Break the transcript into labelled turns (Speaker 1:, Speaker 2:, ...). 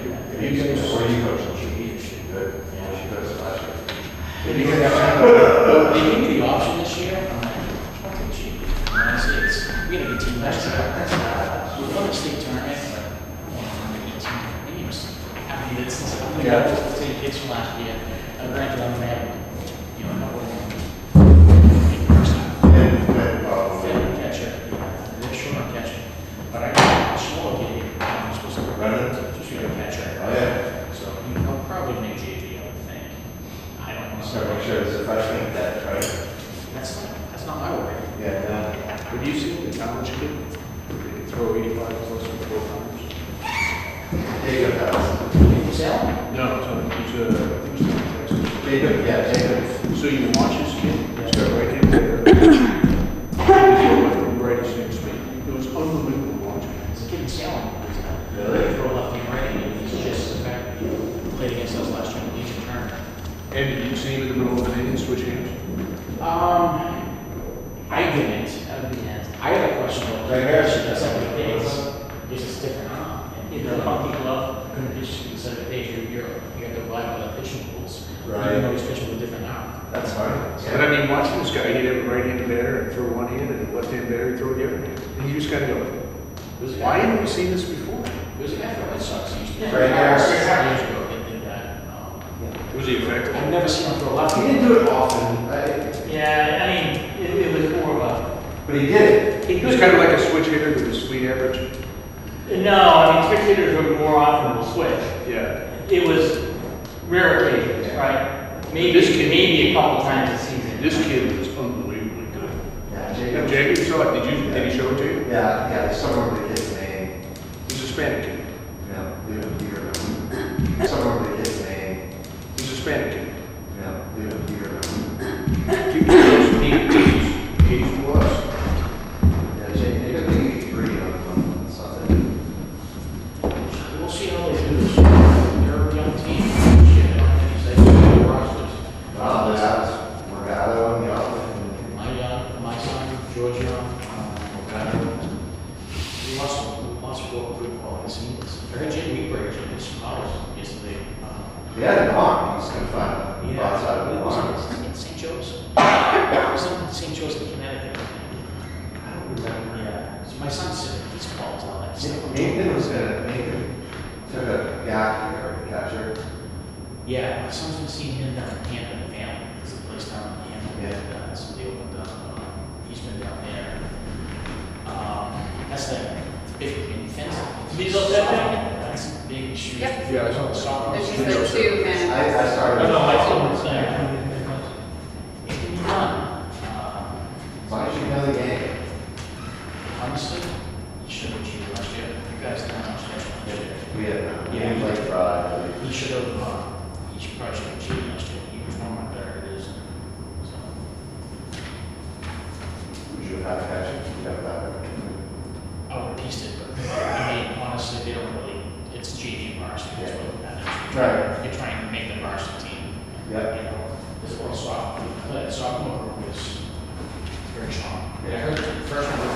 Speaker 1: You can, or you coach them, she, she could, yeah, she coached last year. You could
Speaker 2: Well,
Speaker 1: have,
Speaker 2: They give me the option this year, I'm like, fucking cheap. And I said, it's, we gotta be team last year. We won the state tournament, but we won the eighteen games. I mean, it's, it's, I'm
Speaker 1: Yeah.
Speaker 2: gonna the same kids from last year. Uh, granted, I'm gonna have, you know, a couple of them. in person.
Speaker 1: and, and, um,
Speaker 2: Fair catcher, you know, they're short on catcher. But I got a smaller kid, here, I'm supposed to run
Speaker 1: Brennan?
Speaker 2: it, just shoot a catcher.
Speaker 1: oh, yeah,
Speaker 2: So he'll probably make JV, I would think. I don't know.
Speaker 1: so make sure it's a freshman that, right?
Speaker 2: That's not, that's not my worry.
Speaker 1: Yeah,
Speaker 3: Have you seen the college kid throw 85 plus in four times?
Speaker 1: no. Jacob has,
Speaker 2: Sal?
Speaker 3: No, it's on, it's, uh, I think it's on Texas.
Speaker 1: Jacob, yeah, Jacob,
Speaker 3: So you watch this kid, he's got right hand there. He's going from right to six feet. It was unbelievable watching.
Speaker 2: It's a kid in Salem.
Speaker 1: Really?
Speaker 2: Throw left and right, and he's just, in fact, he played against us last year in the Legion tournament.
Speaker 3: And did you see him in the middle of an inning switch hands?
Speaker 2: Um, I didn't, I didn't. I had a question. though.
Speaker 1: Right here.
Speaker 2: She does every day, it's, it's just different, huh? In the funky glove, competition, instead of days, you're, you're, you have to rely on the pitching rules.
Speaker 1: Right.
Speaker 2: Even though he's pitching with different now.
Speaker 1: that's fine.
Speaker 3: But I mean, watching this guy, he'd have a right hand batter and throw one hand and a left hand batter, he'd throw the other hand. And you just gotta go,
Speaker 2: Who's the
Speaker 3: why
Speaker 2: guy?
Speaker 3: haven't we seen this before?
Speaker 2: There's a guy from Red Sox, he used to.
Speaker 1: Right here.
Speaker 2: Years ago, they did that. um,
Speaker 3: Was he effective?
Speaker 2: I've never seen him throw left.
Speaker 1: He didn't do it often, I,
Speaker 2: Yeah, I mean, it, it was more of a.
Speaker 1: but he did it.
Speaker 3: He was kind of like a switch hitter with a sweet average.
Speaker 2: No, I mean, switch hitters were more often will switch.
Speaker 3: Yeah.
Speaker 2: It was rare occasions, right? Maybe,
Speaker 3: This kid-
Speaker 2: maybe a couple times a season.
Speaker 3: This kid was unbelievably good.
Speaker 1: Yeah,
Speaker 3: Now,
Speaker 1: Jacob,
Speaker 3: Jacob, you saw it, did you, did he show it to you?
Speaker 1: yeah, yeah, somewhere with his name,
Speaker 3: He's Hispanic kid.
Speaker 1: yeah, you, you remember, somewhere with his name,
Speaker 3: He's Hispanic kid.
Speaker 1: yeah, you, you remember.
Speaker 3: He was close, he was, he was.
Speaker 1: Yeah, Jacob, Jacob, I think he three on, on something.
Speaker 2: We'll see how they do. They're a young team. Shit, I don't think he's like, "We're rosters."
Speaker 1: Wow, that's Morgado and Young.
Speaker 2: My, uh, my son, Giorgio, um, Morgado, he lost, lost four good qualities. He was very genuine, very genuine, smart yesterday. Um,
Speaker 1: He had an arm, he's confined,
Speaker 2: Yeah.
Speaker 1: outside of the arms.
Speaker 2: It was in St. Joe's. It was in St. Joe's, in Connecticut.
Speaker 1: I don't remember.
Speaker 2: Yeah. So my son's sitting, he's bald on that stuff.
Speaker 1: Nathan was gonna, Nathan took a gap here, a catcher,
Speaker 2: Yeah, my son's been seeing him down in Hampton, the family, it's a place down in Hampton.
Speaker 1: Yeah.
Speaker 2: Uh, So they opened up, uh, he's been down there. Um, that's the, it's a big, big fence. These are that thing? That's a big shoe.
Speaker 4: Yep.
Speaker 3: Yeah, I saw that.
Speaker 2: Soccer.
Speaker 4: There's
Speaker 2: shoe.
Speaker 4: just the two
Speaker 1: I,
Speaker 4: and
Speaker 1: I started.
Speaker 2: No, no, my son was there. It can be done. Uh,
Speaker 1: Why don't you know the game?
Speaker 2: Honestly, he should have cheated last year. You guys didn't understand.
Speaker 1: We had, uh, we
Speaker 2: Yeah.
Speaker 1: didn't play Friday.
Speaker 2: He should have, uh, he should probably should have cheated last year. He was one of my better it is. So,
Speaker 1: Would you have catcher, you have that one?
Speaker 2: I would have pieced it, but I mean, honestly, they don't really, it's JV varsity, that's what matters.
Speaker 1: Right.
Speaker 2: You're trying to make the varsity team.
Speaker 1: Yep.
Speaker 2: You know, this one sophomore, that sophomore group is very strong. I
Speaker 1: Yeah.
Speaker 2: heard the first one was Um,
Speaker 1: Oh,